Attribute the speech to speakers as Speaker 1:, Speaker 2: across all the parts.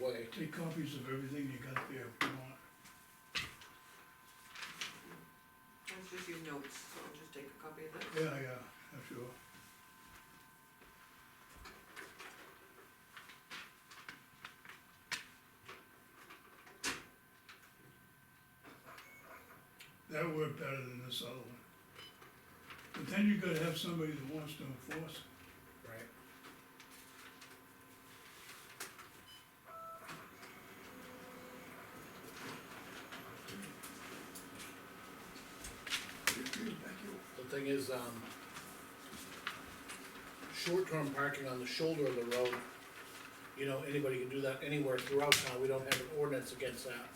Speaker 1: way.
Speaker 2: Take copies of everything you got there if you want.
Speaker 3: That's just your notes, so I'll just take a copy of that.
Speaker 2: Yeah, yeah, that's sure. That worked better than this other one. But then you gotta have somebody that wants to enforce it.
Speaker 1: Right. The thing is, um, short-term parking on the shoulder of the road, you know, anybody can do that anywhere throughout town, we don't have an ordinance against that.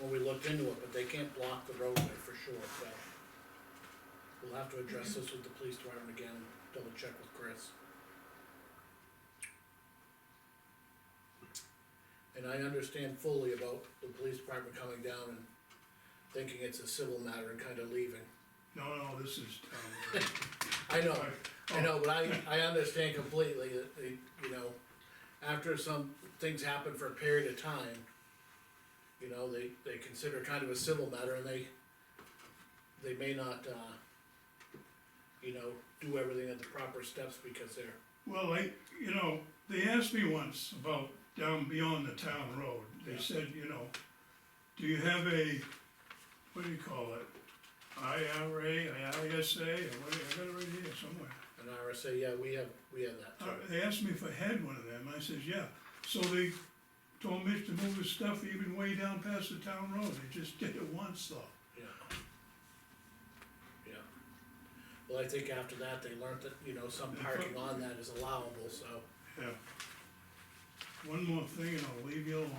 Speaker 1: When we looked into it, but they can't block the roadway for sure, so. We'll have to address this with the police department again, double check with Chris. And I understand fully about the police department coming down and thinking it's a civil matter and kinda leaving.
Speaker 2: No, no, this is town.
Speaker 1: I know,
Speaker 2: Right.
Speaker 1: I know, but I, I understand completely that, they, you know, after some things happen for a period of time, you know, they, they consider it kind of a civil matter and they, they may not, uh, you know, do everything at the proper steps because they're,
Speaker 2: Well, I, you know, they asked me once about down beyond the town road, they
Speaker 1: Yeah.
Speaker 2: said, you know, do you have a, what do you call it? IRA, ISA, or what, I got it right here somewhere.
Speaker 1: an RSA, yeah, we have, we have that
Speaker 2: Uh,
Speaker 1: too.
Speaker 2: They asked me if I had one of them, I says, yeah, so they told Mitch to move his stuff even way down past the town road, they just did it once though.
Speaker 1: Yeah. Yeah. Well, I think after that, they learned that, you know, some parking on that is allowable, so,
Speaker 2: Yeah. One more thing and I'll leave you alone.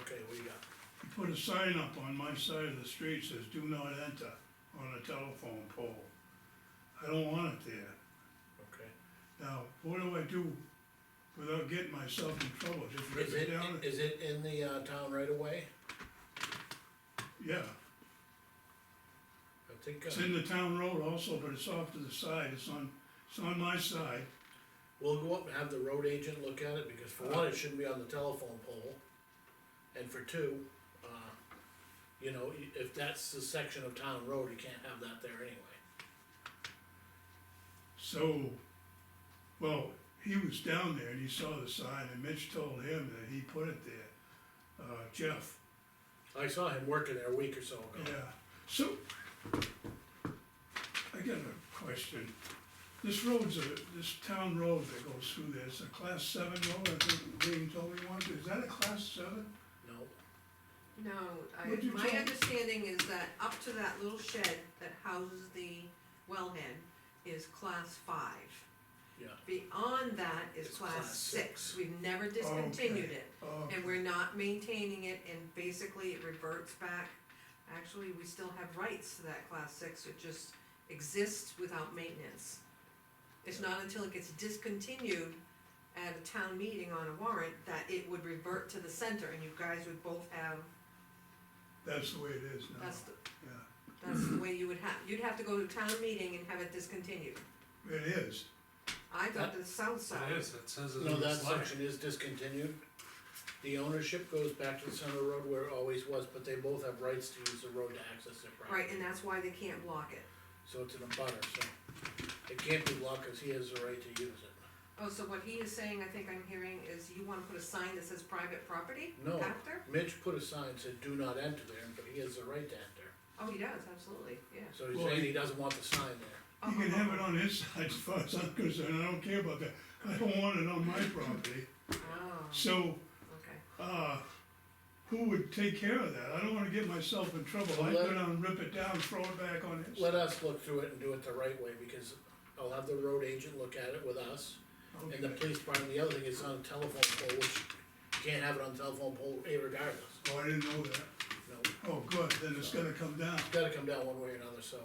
Speaker 1: okay, we got,
Speaker 2: He put a sign up on my side of the street says, do not enter on a telephone pole. I don't want it there.
Speaker 1: okay.
Speaker 2: Now, what do I do without getting myself in trouble? Just rip
Speaker 1: Is
Speaker 2: it
Speaker 1: it,
Speaker 2: down?
Speaker 1: is it in the, uh, town right away?
Speaker 2: Yeah,
Speaker 1: I think,
Speaker 2: it's
Speaker 1: uh,
Speaker 2: in the town road also, but it's off to the side. It's on, it's on my side.
Speaker 1: we'll go up and have the road agent look at it, because for one, it shouldn't be on the telephone pole. And for two, uh, you know, i- if that's the section of town road, you can't have that there anyway.
Speaker 2: So, well, he was down there and he saw the sign and Mitch told him that he put it there. Uh, Jeff,
Speaker 1: I saw him working there a week or so
Speaker 2: Yeah,
Speaker 1: ago.
Speaker 2: so, I got a question. This road's a, this town road that goes through there, it's a class seven road, I think Green told me once, is that a class seven?
Speaker 1: No,
Speaker 3: No, I,
Speaker 2: Would you
Speaker 3: my
Speaker 2: tell-
Speaker 3: understanding is that up to that little shed that houses the wellhead is class five.
Speaker 1: Yeah.
Speaker 3: Beyond that is
Speaker 1: It's
Speaker 3: class
Speaker 1: class
Speaker 3: six,
Speaker 1: six.
Speaker 3: we've never discontinued it,
Speaker 2: Oh,
Speaker 3: and we're not maintaining it, and basically it reverts back. Actually, we still have rights to that class six, it just exists without maintenance. It's not until it gets discontinued at a town meeting on a warrant that it would revert to the center, and you guys would both have
Speaker 2: that's the way it is now,
Speaker 3: that's, the
Speaker 2: yeah,
Speaker 3: that's the way you would have, you'd have to go to town meeting and have it discontinued.
Speaker 2: it is,
Speaker 3: I got the south side.
Speaker 4: It is, it says it
Speaker 1: no,
Speaker 4: on the
Speaker 1: that
Speaker 4: slide.
Speaker 1: section is discontinued. The ownership goes back to the center road where it always was, but they both have rights to use the road to access their property.
Speaker 3: Right, and that's why they can't block it.
Speaker 1: So it's in a butter, so it can't be blocked, cause he has the right to use it.
Speaker 3: Oh, so what he is saying, I think I'm hearing, is you wanna put a sign that says private property
Speaker 1: No.
Speaker 3: after?
Speaker 1: Mitch put a sign, that said do not enter there, but he has the right to enter,
Speaker 3: Oh, he does, absolutely, yeah.
Speaker 1: so he's
Speaker 2: Well,
Speaker 1: saying
Speaker 2: he-
Speaker 1: he doesn't want the sign there.
Speaker 3: Oh,
Speaker 2: you can
Speaker 3: oh,
Speaker 2: have
Speaker 3: oh,
Speaker 2: it on his side as far as I'm concerned, I don't care about that, I don't want it on my property.
Speaker 3: Oh,
Speaker 2: So,
Speaker 3: okay.
Speaker 2: uh, who would take care of that? I don't wanna get myself in trouble, I'd go
Speaker 1: Let-
Speaker 2: down and rip it down, throw it back on his.
Speaker 1: Let us look through it and do it the right way, because I'll have the road agent look at it with us, and the
Speaker 2: Okay.
Speaker 1: police department, the other thing is on a telephone pole, which you can't have it on a telephone pole regardless,
Speaker 2: Oh, I didn't know that.
Speaker 1: no.
Speaker 2: Oh, good, then it's gonna come down,
Speaker 1: It's gotta come down one way or another, so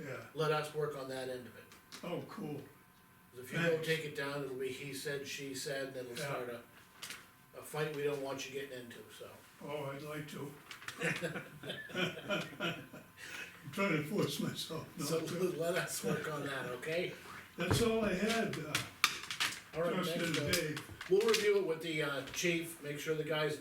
Speaker 2: yeah,
Speaker 1: let us work on that end of it.
Speaker 2: oh, cool,
Speaker 1: 'Cause If you go
Speaker 2: Thanks.
Speaker 1: take it down, it'll be he said, she said, and it'll
Speaker 2: Yeah.
Speaker 1: start a, a fight we don't want you getting into, so.
Speaker 2: oh, I'd like to. I'm trying to force myself
Speaker 1: So
Speaker 2: not to,
Speaker 1: let us work on that, okay?
Speaker 2: that's all I had, uh,
Speaker 1: All right,
Speaker 2: trust in
Speaker 1: next, uh,
Speaker 2: Dave.
Speaker 1: we'll review it with the, uh, chief, make sure the guys